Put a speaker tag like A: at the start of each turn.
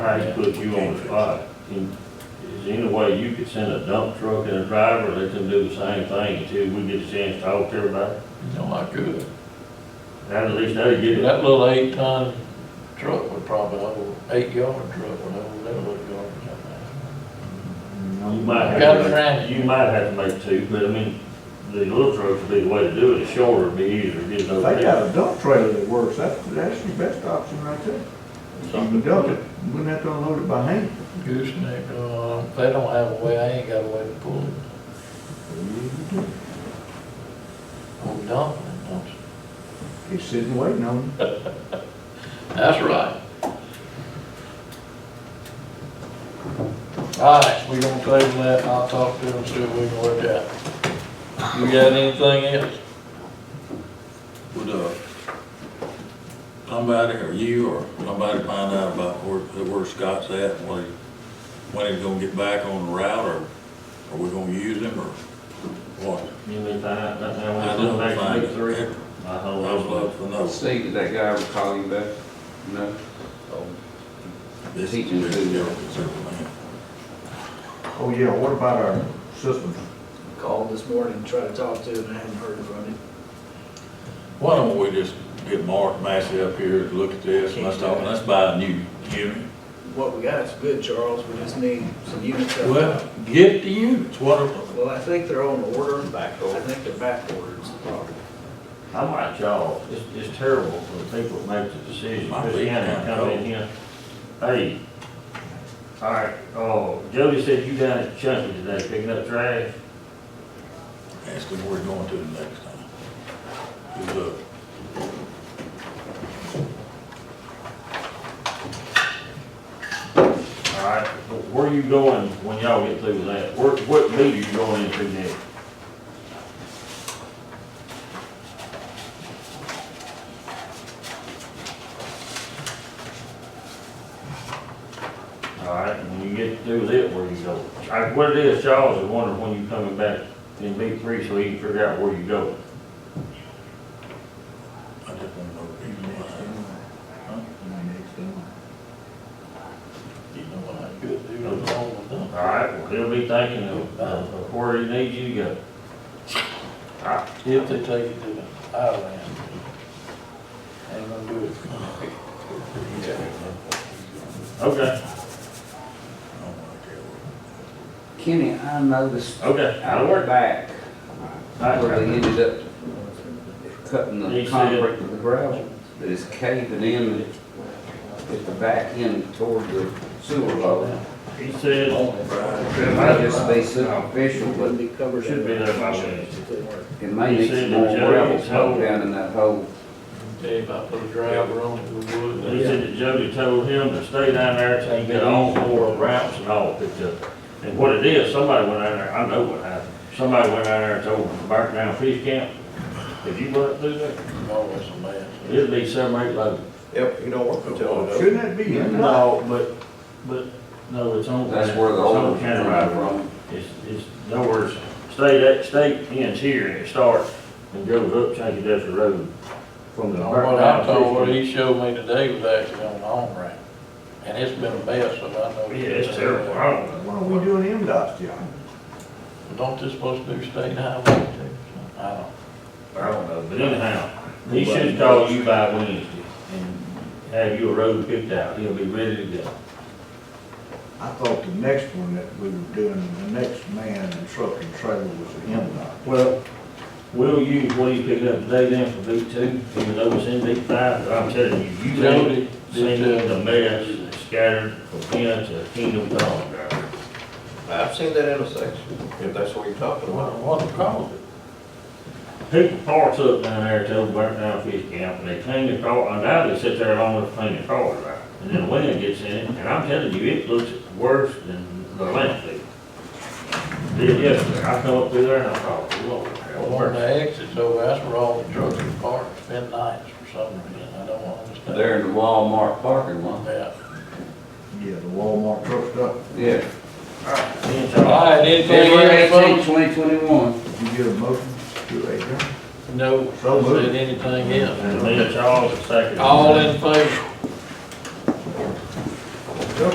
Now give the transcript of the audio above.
A: I put you on the spot. Can- Is there any way you could send a dump truck and a driver, let them do the same thing until we get a chance to talk to everybody?
B: You know, I could.
A: Now, at least they get it.
B: That little eight-ton truck would probably, hold eight-yard truck would hold that little garbage out there.
A: You might have,
B: Got it
A: to
B: around.
A: make- you might have to make two, but I mean, the little trucks would be the way to do it, it's shorter, it'd be easier to get it
C: They
A: over there.
C: got a dump trailer that works, that's, that's your best option right there. You can dump it, you wouldn't have to unload it by hand.
B: Gooseneck, uh, if they don't have a way, I ain't got a way to pull it. I'm dumping it, don't you?
C: It's sitting waiting on you.
B: That's right. All right, we gonna table that, and I'll talk to them, see if we can work out. You got anything else?
D: Would, uh, somebody, or you, or somebody find out about where, where Scott's at, and when, he- when he's gonna get back on the route, or are we gonna use him, or what?
A: You may find out, that's how
D: I
A: we
D: don't
A: come back to
D: find,
A: week three.
D: it.
A: I
D: I
A: hold
D: would
A: on.
D: love to know.
E: See, did that guy ever call you back? No?
D: This
E: He can do that.
C: Oh, yeah, what about our systems?
F: called this morning, tried to talk to him, and I hadn't heard from him.
D: Why don't we just get Mark Massey up here to look at this, and let's talk, and let's buy a new unit.
F: What we got is good, Charles, we just need some units. up.
D: Well, get the units, what are,
F: Well, I think they're on order.
E: Back
F: I
E: over.
F: think they're back orders.
A: I'm like y'all, it's, it's terrible for the people that make the decision,
D: My
A: Chris
D: feet
A: Hannon
D: kinda
A: come in
D: cold.
A: here, hey, all right, oh, Jody said you down at Chunky today picking up trash,
D: ask him where he's going to the next time. He's, uh,
A: all right, but where you going when y'all get through with that? Where, what meet are you going into next? All right, and when you get through with it, where you go? I, what it is, Charles is wondering when you coming back in B three, so he can figure out where you go.
D: I just want to know if he's alive.
B: You know what I could do, I'm all with them.
A: All right, well, he'll be thinking of, of where he needs you to go.
B: If they take it to the island, ain't gonna do it.
A: Okay,
D: I don't want to care what.
E: Kenny, I noticed
A: okay,
E: out
A: that'll
E: the
A: work.
E: back
A: All
E: where they
A: right.
E: ended up cutting
A: He
E: the
A: said-
E: concrete with the gravel, that is caving in at the back end toward the sewer load.
A: He said,
E: It might just be superficial,
F: It
E: but
F: wouldn't be covered.
A: Should be there by Wednesday.
F: It couldn't work.
E: it may
A: You
E: need
A: said
E: some
A: the
E: more
A: jail
E: gravel
A: is
E: put
A: held.
E: down in that hole.
B: Tell you about put a driver on it, we would.
A: he said that Jody told him to stay down there till he get all four ramps and all picked up. And what it is, somebody went down there, I know what happened, somebody went down there and told him to burn down fish camp. If you let through there,
B: Always a mess.
A: it'll be seven, eight loads.
G: Yep, you don't work until it
C: Shouldn't that be in there?
A: No, but, but, no, it's on.
E: That's where
A: it's
E: the
A: on
E: old one's
A: County Road.
E: coming from.
A: It's, it's, in other words, state, that state ends here and it starts and goes up Chankey Desert Road from the.
B: What I told, what he showed me today was actually on the on ramp, and it's been a mess, so I know. Uh,
A: Yeah, it's terrible, I don't know.
C: Why don't we do an MDOT job?
B: Don't this supposed to do state highway too? I don't.
A: I don't know, but anyhow, he should call you by Wednesday and have your road picked out, he'll be ready to go.
C: I thought the next one that we were doing, the next man and truck and trailer was the MDOT.
A: Well, we'll use what he picked up today then for B two, even though it's in B five, but I'm telling you, you
B: Jody,
A: don't seen the mess that's scattered from here to Kingdom Come.
G: I've seen that intersection, if that's what you're talking
B: what,
G: about.
B: what it called it?
A: People parks up down there till burnt down fish camp, and they clean their car, and now they sit there long as clean their car, right? And then the wind gets in it, and I'm telling you, it looks worse than the landfill. Did yesterday, I come up through there and I thought, Lord, hell,
B: Well, on
A: worse.
B: the exits over, that's where all the trucks are parked, spend nights for some reason, I don't understand.
E: There in the Walmart parking lot.
B: Yeah.
C: Yeah, the Walmart truck stuff,
E: Yeah.
A: Me and
B: All
A: Charles,
B: right, anything
E: February
B: else, folks?
E: eighteenth, twenty twenty-one.
C: did you get a motion to adjourn?
B: No,
C: So moved.
B: said anything else.
A: and me and Charles, second.
B: All in favor?